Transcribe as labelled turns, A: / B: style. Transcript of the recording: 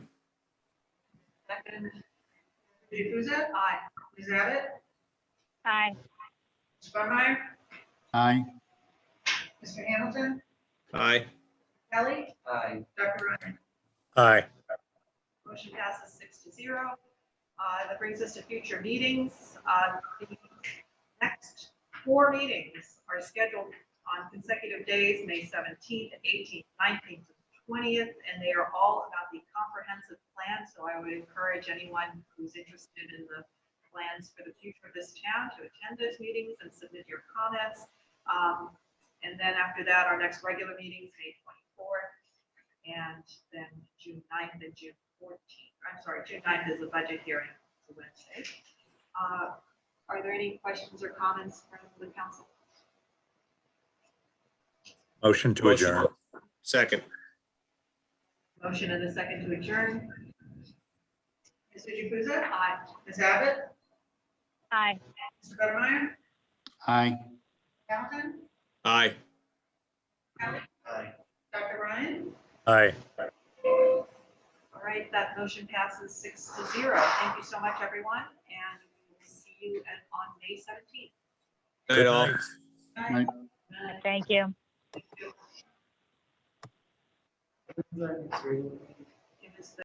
A: And Jukusa? Aye. Ms. Abbott?
B: Aye.
A: Mr. Bumey?
C: Aye.
A: Mr. Hamilton?
D: Aye.
A: Kelly?
E: Aye.
A: Dr. Ryan?
F: Aye.
A: Motion passes six to zero. Uh, That brings us to future meetings. Uh, The next four meetings are scheduled on consecutive days, May 17th, 18th, 19th, and 20th, and they are all about the comprehensive plan. So I would encourage anyone who's interested in the plans for the future of this town to attend those meetings and submit your comments. Um, And then after that, our next regular meeting is May 24th, and then June 9th and June 14th. I'm sorry, June 9th is a budget hearing, it's a Wednesday. Uh, Are there any questions or comments from the council?
F: Motion to
D: Motion.
F: adjourn.
D: Second.
A: Motion and a second to adjourn. Mr. Jukusa? Aye. Ms. Abbott?
B: Aye.
A: Mr. Buttermeyer?
C: Aye.
A: Hamilton?
D: Aye.
E: Aye.
A: Dr. Ryan?
F: Aye.
A: All right, that motion passes six to zero. Thank you so much, everyone, and we'll see you at- on May 17th.
D: Night all.
C: Aye.
A: Night.
B: Thank you.
E: Three.